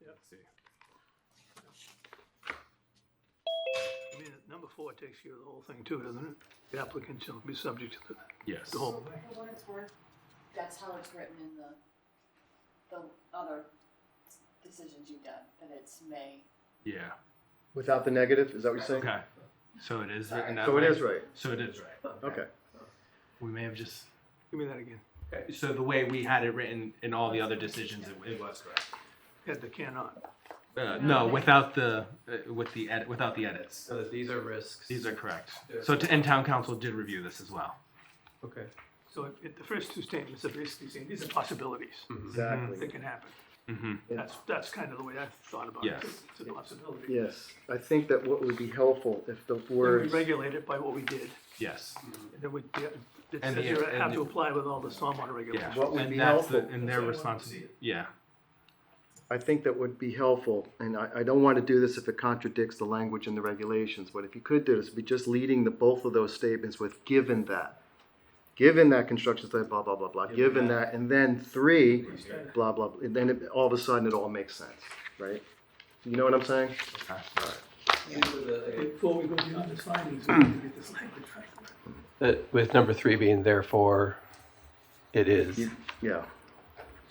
Yep. See. I mean, number four takes care of the whole thing too, doesn't it? The applicant shall be subject to the, Yes. the whole Well, thing. For what it's worth, that's how it's written in the, the other s- decisions you've done, that it's may. Yeah. Without the negative, is that what you're saying? Okay. So it is written that So way. Mm-hmm. it is right. So it is right. Okay. We may have just. Give me that again. So the way we had it written in all the other decisions, it, it was correct. Had the cannot. Uh, no, without the uh, with the edit without the edits. So these are risks. These are correct. So t- and town council did review this as well. Okay. So it- it, the first two statements are basically saying these are possibilities that Exactly. can happen. Mm-hmm. That's, that's kind of the way I thought about it. Yes. It's a possibility. Yes, I think that what would be helpful if the And We words, regulate it by what we did. Yes. And Then we, yeah, it says And the- you and have to the- apply with all the stormwater Yeah. regulations. What would and be that's the- helpful- and their responsibility. Yeah. I think that would be helpful, and I, I don't want to do this if it contradicts the language in the regulations, but if you could do this, be just leading the, both of those statements with given that. Given that construction site, blah, blah, blah, blah, given that, and then three, blah, blah, blah, and then it- all of a sudden it all makes sense, right? You know what I'm saying? Okay. Before we go beyond the findings, we need to get this language right. That with number three being therefore, it is. You- Yeah.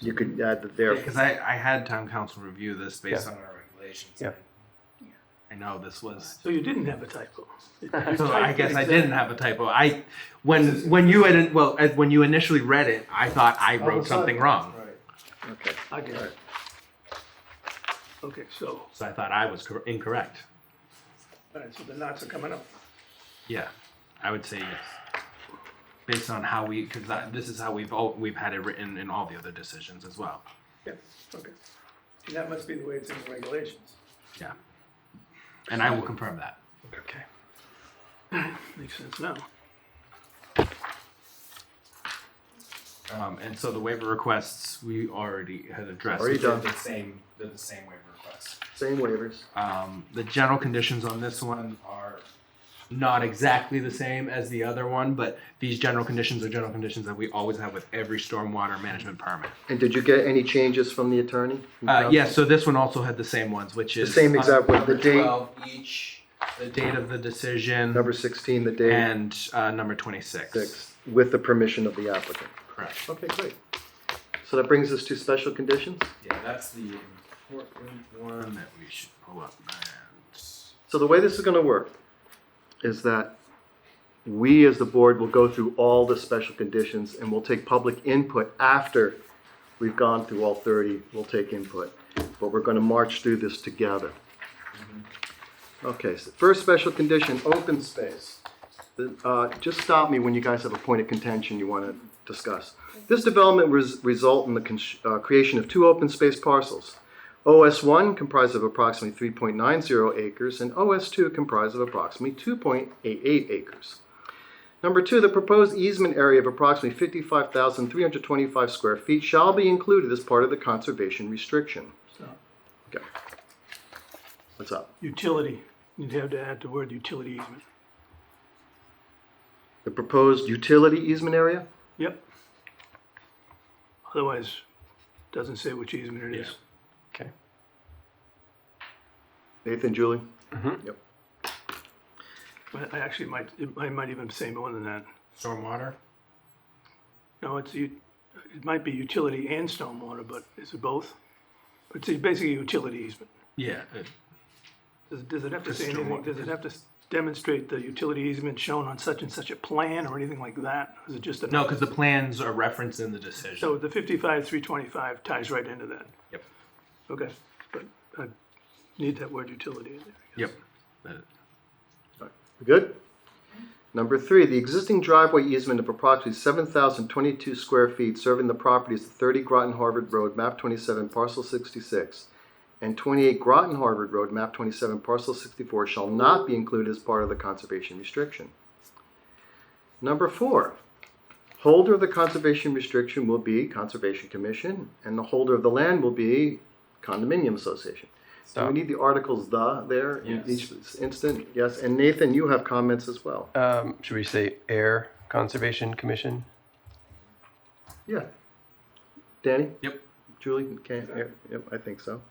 You could add the there. Because I, I had town council review this based Yeah. on our regulations. Yeah. I know this was. So you didn't have a typo. So I guess I didn't have a typo. I when when you had well as- when you initially read it, I thought I wrote something wrong, Okay. I get it. Okay, so, so I thought I was cor- incorrect. all right, so the knots are coming up. Yeah, I would say yes, based on how we because this is how we've all we've had it written in all the other decisions as well. Yeah, okay. And that must be the way it's in the regulations. Yeah, and I will confirm that. Okay. Makes sense now. Um, and so the waiver requests we already had addressed. Already which are done. The same, they're the same waiver requests. Same waivers. Um, the general conditions on this one are not exactly the same as the other one, but these general conditions are general conditions that we always have with every stormwater management permit. And did you get any changes from the attorney? Uh, yeah, so this one also had the same ones, which The is same exact, with the number date, 12 each, the date of the decision, number sixteen, the date. and uh, number 26. six, with the permission of the applicant. Correct. Okay, great. So that brings us to special conditions. Yeah, that's the important one that we should pull up. And So the way this is gonna work is that we, as the board, will go through all the special conditions and we'll take public input after we've gone through all thirty, we'll take input. But we're gonna march through this together. Okay, so first special condition, open space. The- uh, Just stop me when you guys have a point of contention you want to discuss. This development res- result in the cons- uh, creation of two open space parcels. OS1 comprised of approximately 3.90 acres and OS2 comprised of approximately 2.88 acres. Number two, the proposed easement area of approximately 55,325 square feet shall be included as part of the conservation restriction. So Okay. What's up? utility, you'd have to add the word utility easement. The proposed utility easement area? Yep. Otherwise, doesn't say which easement it is. Okay. Nathan, Julie? But I actually might, it- I might even say more than that. stormwater? No, it's, u- it might be utility and stormwater, but is it both? It's basically utility easement. Yeah. it- Does, does it have to Just say anything, stormwater. does it have to s- demonstrate the utility easement shown on such and such a plan or anything like that? Is it just a? No, because the plans are referenced in the decision. So the fifty-five, three twenty-five ties right into that. Yep. Okay, but I need that word utility in there. Yep. Uh, We Good? Number three, the existing driveway easement of approximately 7,022 square feet serving the properties of 30 Groton Harvard Road, map 27, parcel 66, and 28 Groton Harvard Road, map 27, parcel 64, shall not be included as part of the conservation restriction. Number four, holder of the conservation restriction will be Conservation Commission, and the holder of the land will be condominium association. Do we Stop. need the articles "the" there in Yes. each instant? Yes, and Nathan, you have comments as well. Um, should we say air conservation commission? Yeah. Danny? Yep. Julie? Okay, yeah, yep, I think so.